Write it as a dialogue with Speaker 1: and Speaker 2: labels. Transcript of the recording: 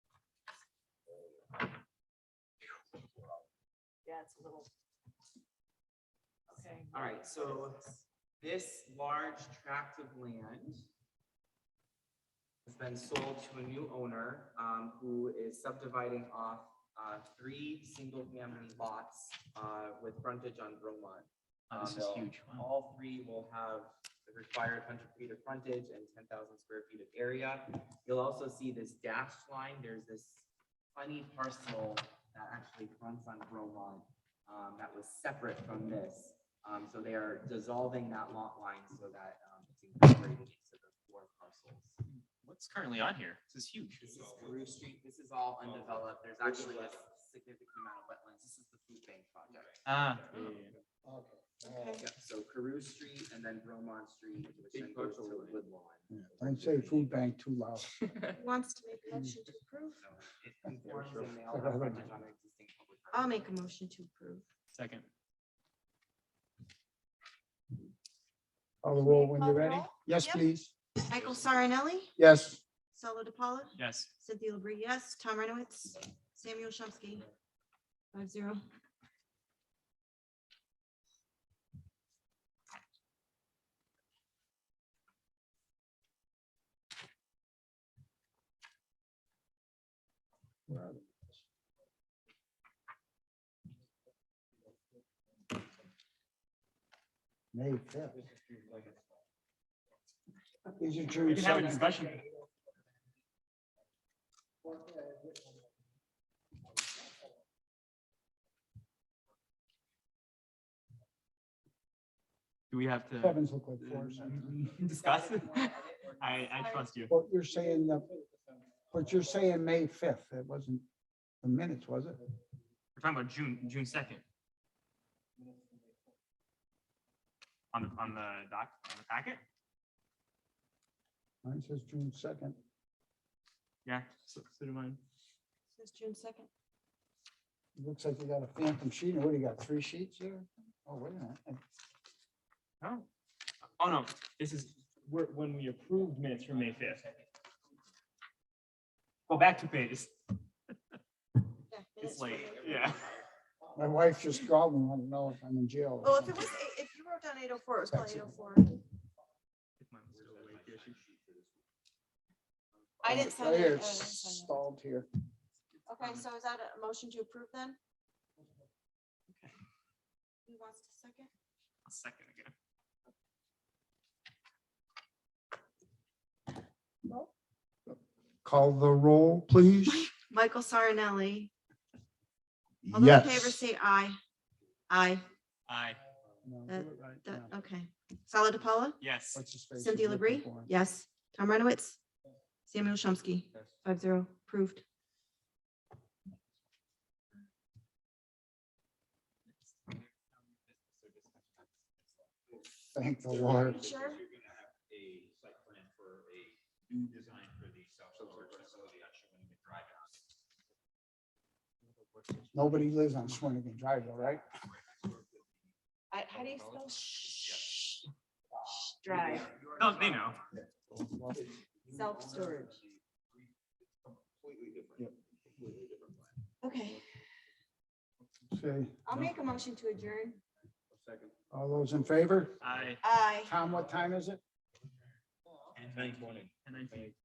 Speaker 1: yeah, it's a little. Okay.
Speaker 2: All right, so- This large tract of land has been sold to a new owner, um, who is subdividing off, uh, three single-family lots, uh, with frontage on Bromont.
Speaker 3: Oh,
Speaker 2: Um,
Speaker 3: This is
Speaker 2: they'll-
Speaker 3: huge. Wow.
Speaker 2: All three will have the required hundred feet of frontage and ten thousand square feet of area. You'll also see this dashed line, there's this funny parcel that actually fronts on Bromont, um, that was separate from this. Um, so they are dissolving that lot line so that, um, it's incorporated into the four parcels.
Speaker 3: What's currently on here? This is huge.
Speaker 2: This is Carew Street, this is all undeveloped, there's actually a significant amount of wetlands, this is the food bank project.
Speaker 3: Ah,
Speaker 1: Okay.
Speaker 2: Yep, so Carew Street and then Bromont Street, which then
Speaker 4: Big
Speaker 2: goes to
Speaker 4: parcel.
Speaker 2: Woodlawn.
Speaker 5: Don't say food bank too loud.
Speaker 1: Wants to make a
Speaker 5: Mm.
Speaker 1: motion to approve?
Speaker 2: So it conforms and they all have frontage on existing public roads.
Speaker 1: I'll make a motion to approve.
Speaker 3: second.
Speaker 5: Call the roll when you're ready.
Speaker 1: Call
Speaker 5: Yes,
Speaker 1: Yep.
Speaker 5: please.
Speaker 1: Michael Sarnelli,
Speaker 5: Yes.
Speaker 1: Salo DiPaolo,
Speaker 3: Yes.
Speaker 1: Cynthia Labrie, yes. Tom Renowitz, Samuel Chomsky. Five zero.
Speaker 5: May fifth. These are true.
Speaker 3: We can have a
Speaker 5: second.
Speaker 3: discussion. Do we have to
Speaker 5: Sevens look like fours.
Speaker 3: discuss? I, I trust you.
Speaker 5: What you're saying, the- what you're saying, May fifth, it wasn't the minutes, was it?
Speaker 3: We're talking about June, June second. On the, on the doc, on the packet?
Speaker 5: Mine says June second.
Speaker 3: Yeah, so so do mine.
Speaker 1: Since June second.
Speaker 5: Looks like you got a phantom sheet. What do you got, three sheets here? Oh, wait a minute.
Speaker 3: Oh. Oh, no, this is, we're, when we approved minutes from May fifth. Go back two pages. It's late, yeah.
Speaker 5: My wife just called and wanted to know if I'm in jail. or
Speaker 1: Well, Oh, if it
Speaker 5: something.
Speaker 1: was, eight- if you wrote down eight oh four, it was probably eight oh four. I didn't sign
Speaker 5: Right
Speaker 1: it.
Speaker 5: here,
Speaker 1: oh, I didn't
Speaker 5: it's
Speaker 1: sign it.
Speaker 5: stalled here.
Speaker 1: Okay, so is that a motion to approve then? Who wants to second?
Speaker 3: A Second again.
Speaker 5: Call the roll, please.
Speaker 1: Michael Sarnelli. All those in favor
Speaker 5: Yes.
Speaker 1: say aye. Aye,
Speaker 3: Aye,
Speaker 5: No, do
Speaker 1: Uh,
Speaker 5: it right
Speaker 1: that-
Speaker 5: now.
Speaker 1: okay. Salo DiPaolo,
Speaker 3: yes.
Speaker 5: What's his face
Speaker 1: Cynthia
Speaker 5: is looking
Speaker 1: Labrie,
Speaker 5: for him.
Speaker 1: yes. Tom Renowitz, Samuel Chomsky, five zero, approved.
Speaker 5: Thank the Lord.
Speaker 1: Sure.
Speaker 4: A site plan for a new design for the self-storage facility on Shawinigan Drive.
Speaker 5: Nobody lives on Swinigan Drive, all right?
Speaker 1: I, how do you spell sh? Drive,
Speaker 3: No, they know.
Speaker 1: self-storage.
Speaker 4: Completely
Speaker 5: Yep.
Speaker 4: different. Completely different plan.
Speaker 1: Okay,
Speaker 5: Okay,
Speaker 1: I'll make a motion to adjourn.
Speaker 4: Second.
Speaker 5: all those in favor?
Speaker 3: Aye.
Speaker 1: Aye.
Speaker 5: Tom, what time is it?
Speaker 3: And
Speaker 4: Nine twenty.
Speaker 3: And nineteen.